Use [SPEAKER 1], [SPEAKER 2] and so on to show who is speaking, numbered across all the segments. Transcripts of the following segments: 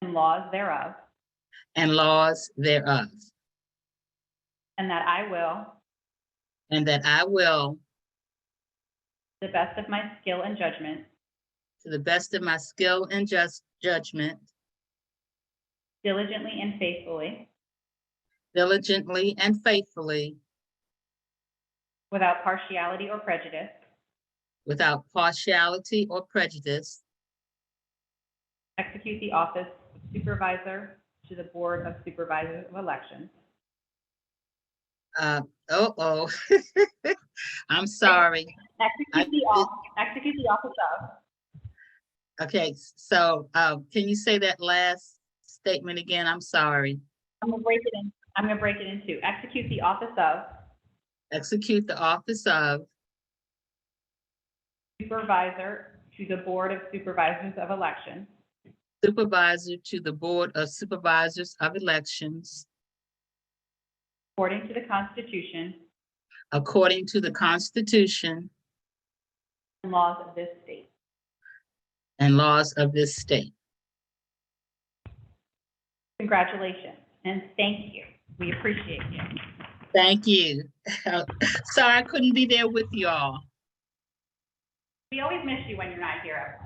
[SPEAKER 1] and laws thereof,
[SPEAKER 2] and laws thereof,
[SPEAKER 1] and that I will,
[SPEAKER 2] and that I will,
[SPEAKER 1] to the best of my skill and judgment,
[SPEAKER 2] to the best of my skill and just judgment,
[SPEAKER 1] diligently and faithfully,
[SPEAKER 2] diligently and faithfully,
[SPEAKER 1] without partiality or prejudice,
[SPEAKER 2] without partiality or prejudice,
[SPEAKER 1] execute the office of Supervisor to the Board of Supervisors of Elections.
[SPEAKER 2] uh, oh, oh. I'm sorry.
[SPEAKER 1] Execute the office, execute the office of,
[SPEAKER 2] Okay, s- so, uh, can you say that last statement again? I'm sorry.
[SPEAKER 1] I'm gonna break it in, I'm gonna break it in two. Execute the office of
[SPEAKER 2] Execute the office of
[SPEAKER 1] Supervisor to the Board of Supervisors of Elections,
[SPEAKER 2] supervisor to the Board of Supervisors of Elections
[SPEAKER 1] according to the Constitution
[SPEAKER 2] according to the Constitution
[SPEAKER 1] and laws of this state.
[SPEAKER 2] and laws of this state.
[SPEAKER 1] Congratulations and thank you. We appreciate you.
[SPEAKER 2] Thank you. Sorry I couldn't be there with you all.
[SPEAKER 1] We always miss you when you're not here.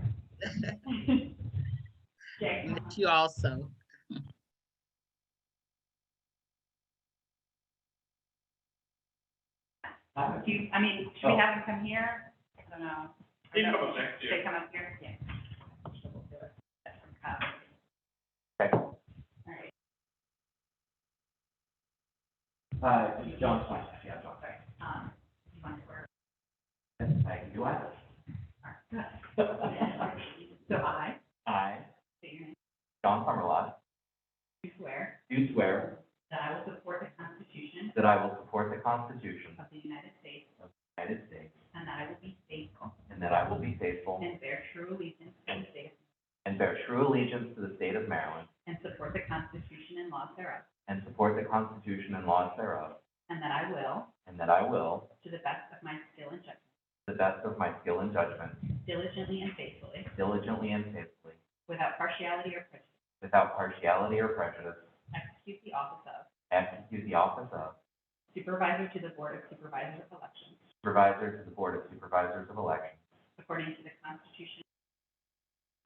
[SPEAKER 1] Evelyn. Jay, come on.
[SPEAKER 2] Miss You also.
[SPEAKER 1] Do you- I mean, should we have them come here? I don't know.
[SPEAKER 3] Oh. They can come up next
[SPEAKER 1] Should they
[SPEAKER 3] year.
[SPEAKER 1] come up here? Yeah. That's from Cobb. All right.
[SPEAKER 3] Uh, John Smith, yeah, John, thanks.
[SPEAKER 1] Um, you want to wear-
[SPEAKER 3] I can do either.
[SPEAKER 1] So I,
[SPEAKER 3] I,
[SPEAKER 1] state your name,
[SPEAKER 3] John Summerlot,
[SPEAKER 1] you swear
[SPEAKER 3] do swear
[SPEAKER 1] that I will support the Constitution
[SPEAKER 3] that I will support the Constitution of
[SPEAKER 1] of the United States
[SPEAKER 3] the United States
[SPEAKER 1] and that I will be faithful
[SPEAKER 3] and that I will be faithful
[SPEAKER 1] and bear true allegiance to the state
[SPEAKER 3] and bear true allegiance to the state of Maryland
[SPEAKER 1] and support the Constitution and laws thereof,
[SPEAKER 3] and support the Constitution and laws thereof,
[SPEAKER 1] and that I will,
[SPEAKER 3] and that I will,
[SPEAKER 1] to the best of my skill and judgment,
[SPEAKER 3] to the best of my skill and judgment,
[SPEAKER 1] diligently and faithfully,
[SPEAKER 3] diligently and faithfully,
[SPEAKER 1] without partiality or prejudice,
[SPEAKER 3] without partiality or prejudice,
[SPEAKER 1] execute the office of
[SPEAKER 3] execute the office of
[SPEAKER 1] Supervisor to the Board of Supervisors of Elections,
[SPEAKER 3] Supervisor to the Board of Supervisors of Elections
[SPEAKER 1] according to the Constitution.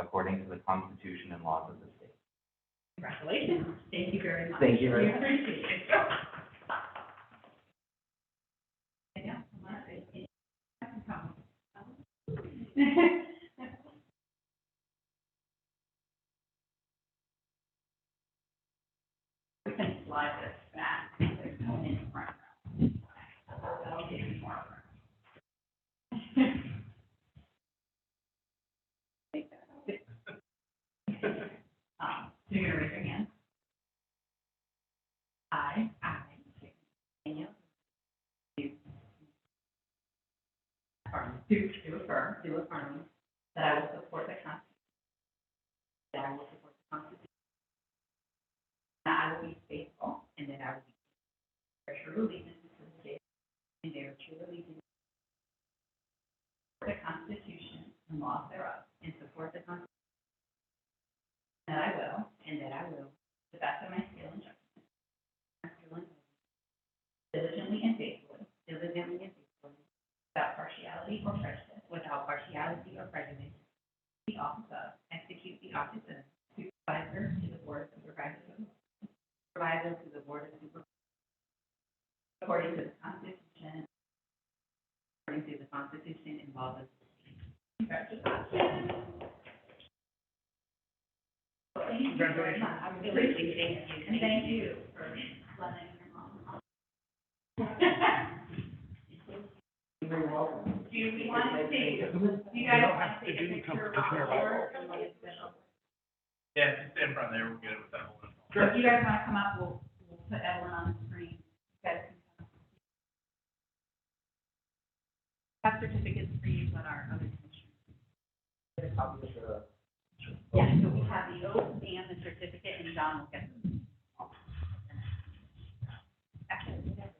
[SPEAKER 3] according to the Constitution and laws of the state.
[SPEAKER 1] Congratulations. Thank you very much.
[SPEAKER 3] Thank you very
[SPEAKER 1] We
[SPEAKER 3] much.
[SPEAKER 1] appreciate it. Yeah, come on, I think. I can come. We can slide this back. There's no one in the front row. That'll give you more room. Take that out. Um, so you're gonna raise your hand. I, I, Daniel. Do. affirm- Do, do affirm, do affirm that I will support the Constitution. That I will support the Constitution. That I will be faithful and that I will be bear true allegiance to the state and bear true allegiance to the Constitution and laws thereof and support the Constitution that I will. And that I will. To the best of my skill and judgment. my skill and judgment, Diligently and faithfully. Diligently and faithfully. Without partiality or prejudice. Without partiality or prejudice. The office of, execute the office of supervisor to the board of supervisors. Supervisor to the board of supervisors. According to the Constitution. According to the Constitution involved. Congratulations. Thank you very much. I really appreciate you. And thank you for letting your mom. Do we want to take, do you guys want to take a picture of the board?
[SPEAKER 3] Yeah, just in front there, we'll get it with that one.
[SPEAKER 1] If you guys want to come up, we'll, we'll put Evelyn on the screen. You guys can come up. Have certificates for you, but our other commissioners. Yeah, so we have the oath and the certificate, and John will get them. Actually, we have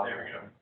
[SPEAKER 3] There we go.